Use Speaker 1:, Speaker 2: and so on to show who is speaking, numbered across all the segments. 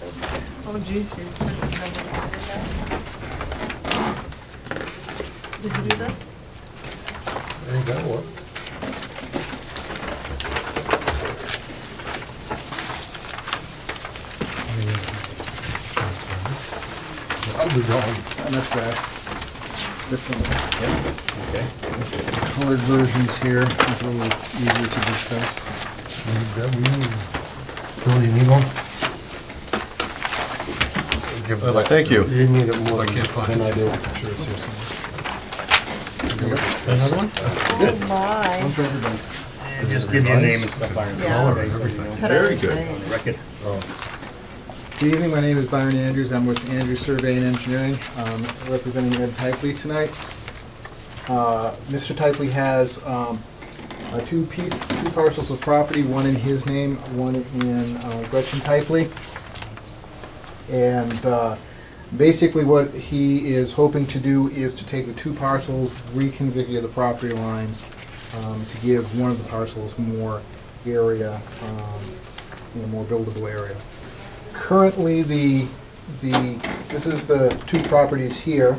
Speaker 1: Oh jeez, you put this on this side. Did you do this?
Speaker 2: I ain't got one. I'll be gone, and that's bad. That's on the
Speaker 3: Okay.
Speaker 2: colored versions here, it's a little easier to discuss. Bill, you need one?
Speaker 3: Well, thank you.
Speaker 2: You need it
Speaker 3: I
Speaker 2: more
Speaker 3: can't find
Speaker 2: than
Speaker 3: it.
Speaker 2: I do. Sure it's here somewhere.
Speaker 3: Another one?
Speaker 1: Oh my.
Speaker 2: Don't drop it down.
Speaker 4: And Just give your name and stuff on
Speaker 1: Yeah. Color,
Speaker 4: it. so you know.
Speaker 1: That's what I
Speaker 3: Very
Speaker 1: was
Speaker 3: good.
Speaker 1: saying.
Speaker 4: Record.
Speaker 2: Good evening, my name is Byron Andrews, I'm with Andrews Survey and Engineering, um, representing Ed Typley tonight. Uh, Mr. Typley has um, uh, two piece, two parcels of property, one in his name, one in uh, Gretchen Typley. And uh, basically what he is hoping to do is to take the two parcels, reconfigure the property lines um, to give one of the parcels more area, um, you know, more buildable area. Currently, the, the, this is the two properties here.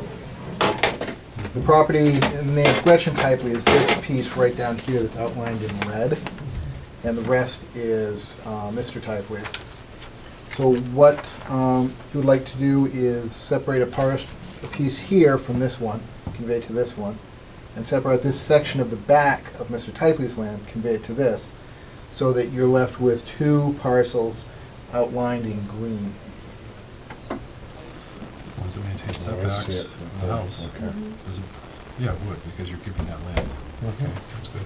Speaker 2: The property in the name of Gretchen Typley is this piece right down here that's outlined in red, and the rest is uh, Mr. Typley's. So what um, you would like to do is separate a part, a piece here from this one, convey it to this one, and separate this section of the back of Mr. Typley's land, convey it to this, so that you're left with two parcels outlined in green.
Speaker 3: Does it maintain
Speaker 5: Oh, I see
Speaker 3: setbacks
Speaker 5: it.
Speaker 3: from the house?
Speaker 5: Okay.
Speaker 3: Does it- Yeah, it would, because you're keeping that land. Okay, that's good.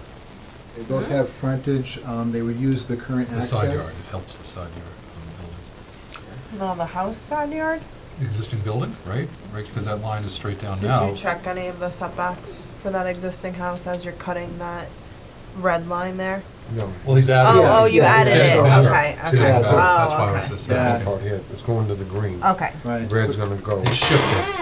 Speaker 2: They both have frontage, um, they would use the current
Speaker 3: The
Speaker 2: access.
Speaker 3: side yard, it helps the side yard on the building.
Speaker 1: No, the house side yard?
Speaker 3: Existing building, right? Right, because that line is straight down
Speaker 1: Did
Speaker 3: now.
Speaker 1: you check any of the setbacks for that existing house as you're cutting that red line there?
Speaker 5: No,
Speaker 3: Well, he's added it.
Speaker 1: Oh, oh, you
Speaker 2: Yeah.
Speaker 1: added
Speaker 3: It's
Speaker 1: it,
Speaker 3: getting better.
Speaker 1: okay,
Speaker 3: It's
Speaker 1: okay.
Speaker 3: getting better.
Speaker 2: Oh,
Speaker 3: That's why I was
Speaker 1: okay.
Speaker 5: that's
Speaker 3: just
Speaker 2: Yeah.
Speaker 3: asking.
Speaker 5: part here, it's going to the green.
Speaker 1: Okay,
Speaker 2: Right.
Speaker 5: Red's gonna go.
Speaker 3: He shifted.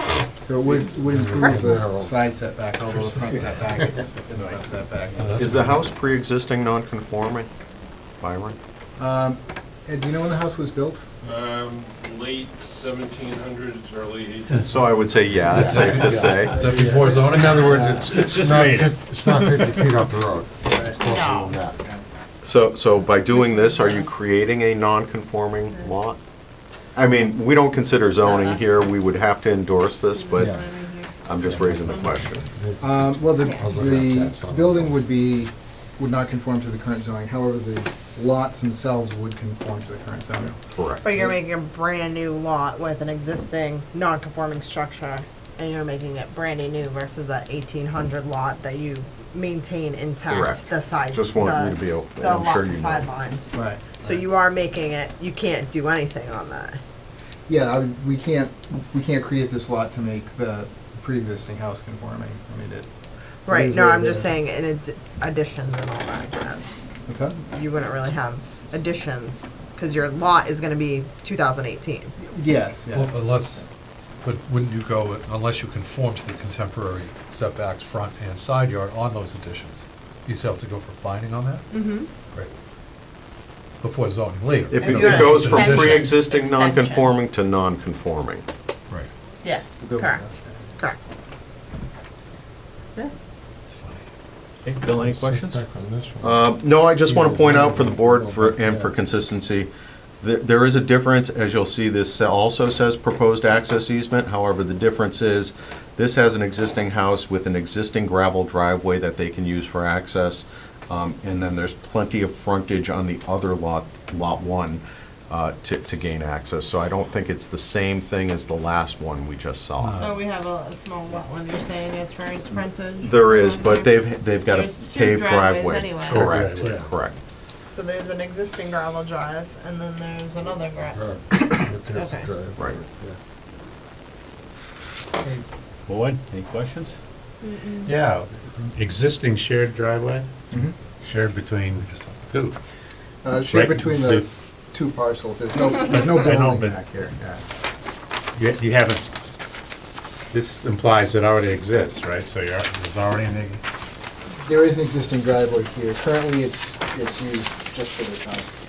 Speaker 2: So it would, would improve the
Speaker 5: Christmas.
Speaker 2: side setback, although the front setback is within the front setback.
Speaker 3: That's
Speaker 6: Is the house pre-existing non-conforming, Byron?
Speaker 2: Um, Ed, do you know when the house was built?
Speaker 7: Um, late seventeen hundreds, early eighteen.
Speaker 6: So I would say, yeah, that's safe to say.
Speaker 3: Is that before zoning?
Speaker 5: In other words,
Speaker 4: It's
Speaker 5: it's,
Speaker 4: just
Speaker 5: it's not,
Speaker 4: made.
Speaker 5: fif- it's not fifty feet off the road.
Speaker 1: No.
Speaker 2: Um,
Speaker 6: So, so by doing this, are you creating a non-conforming lot? I mean, we don't consider zoning here, we would have to endorse this, but
Speaker 5: Yeah.
Speaker 6: I'm just raising the question.
Speaker 2: Um, well, the,
Speaker 1: Yeah.
Speaker 2: the building would be, would not conform to the current zoning, however, the lots themselves would conform to the current zoning.
Speaker 6: Correct.
Speaker 1: but you're making a brand new lot with an existing non-conforming structure, and you're making it brandy new versus that eighteen hundred lot that you maintain intact,
Speaker 6: Correct.
Speaker 1: the sides,
Speaker 6: Just want you to
Speaker 1: the,
Speaker 6: be, open.
Speaker 1: the
Speaker 6: I'm sure
Speaker 1: lot
Speaker 6: you know.
Speaker 1: sidelines.
Speaker 2: Right.
Speaker 1: So you are making it, you can't do anything on that.
Speaker 2: Yeah, I would- we can't, we can't create this lot to make the pre-existing house conforming, I mean, it.
Speaker 1: Right,
Speaker 2: is
Speaker 1: no,
Speaker 2: what it
Speaker 1: I'm just
Speaker 2: is.
Speaker 1: saying in ad- additions and all that jazz.
Speaker 2: What's that?
Speaker 1: You wouldn't really have additions, cause your lot is gonna be two thousand eighteen.
Speaker 2: Yes, yeah.
Speaker 3: Well, Unless, but wouldn't you go, unless you conform to the contemporary setbacks, front and side yard on those additions? You still have to go for finding on that?
Speaker 1: Mm-hmm.
Speaker 3: Right. Before zoning later.
Speaker 6: It
Speaker 1: And
Speaker 6: be-
Speaker 1: you're-
Speaker 6: it goes from
Speaker 1: Extension.
Speaker 6: pre-existing
Speaker 1: Extension.
Speaker 6: non-conforming to non-conforming.
Speaker 3: Right,
Speaker 1: Yes,
Speaker 2: Building.
Speaker 1: correct, correct. Yeah.
Speaker 3: it's funny.
Speaker 4: Hey, Bill, any questions?
Speaker 5: Back on this one.
Speaker 6: Uh, No, I just want to point out for the board for- and for consistency, th- there is a difference, as you'll see, this also says proposed access easement. However, the difference is, this has an existing house with an existing gravel driveway that they can use for access. Um, And then there's plenty of frontage on the other lot, Lot 1, uh, to to gain access. So I don't think it's the same thing as the last one we just saw.
Speaker 3: So
Speaker 1: we have a small wetland, you're saying, as far as frontage?
Speaker 6: There is, but they've, they've got a
Speaker 1: There's two
Speaker 6: paved
Speaker 1: driveways
Speaker 6: driveway.
Speaker 1: anyway.
Speaker 6: Correct,
Speaker 3: Yeah.
Speaker 6: correct.
Speaker 1: So there's an existing gravel drive, and then there's another gravel.
Speaker 5: Drive. Right there's the
Speaker 1: Okay.
Speaker 5: drive.
Speaker 6: Right.
Speaker 5: Yeah.
Speaker 4: Hmm. Boyd, any questions?
Speaker 8: Yeah, existing shared driveway,
Speaker 4: Mm-hmm.
Speaker 2: Mhm.
Speaker 8: shared between who?
Speaker 2: Uh, shared
Speaker 8: Right,
Speaker 2: between the
Speaker 8: the-
Speaker 2: two parcels, there's no, there's no
Speaker 8: I know,
Speaker 2: building
Speaker 8: but-
Speaker 2: back here, yeah.
Speaker 8: You you haven't, this implies it already exists, right? So you're, there's already an, ex-
Speaker 2: There is an existing driveway here, currently it's, it's used just for the house.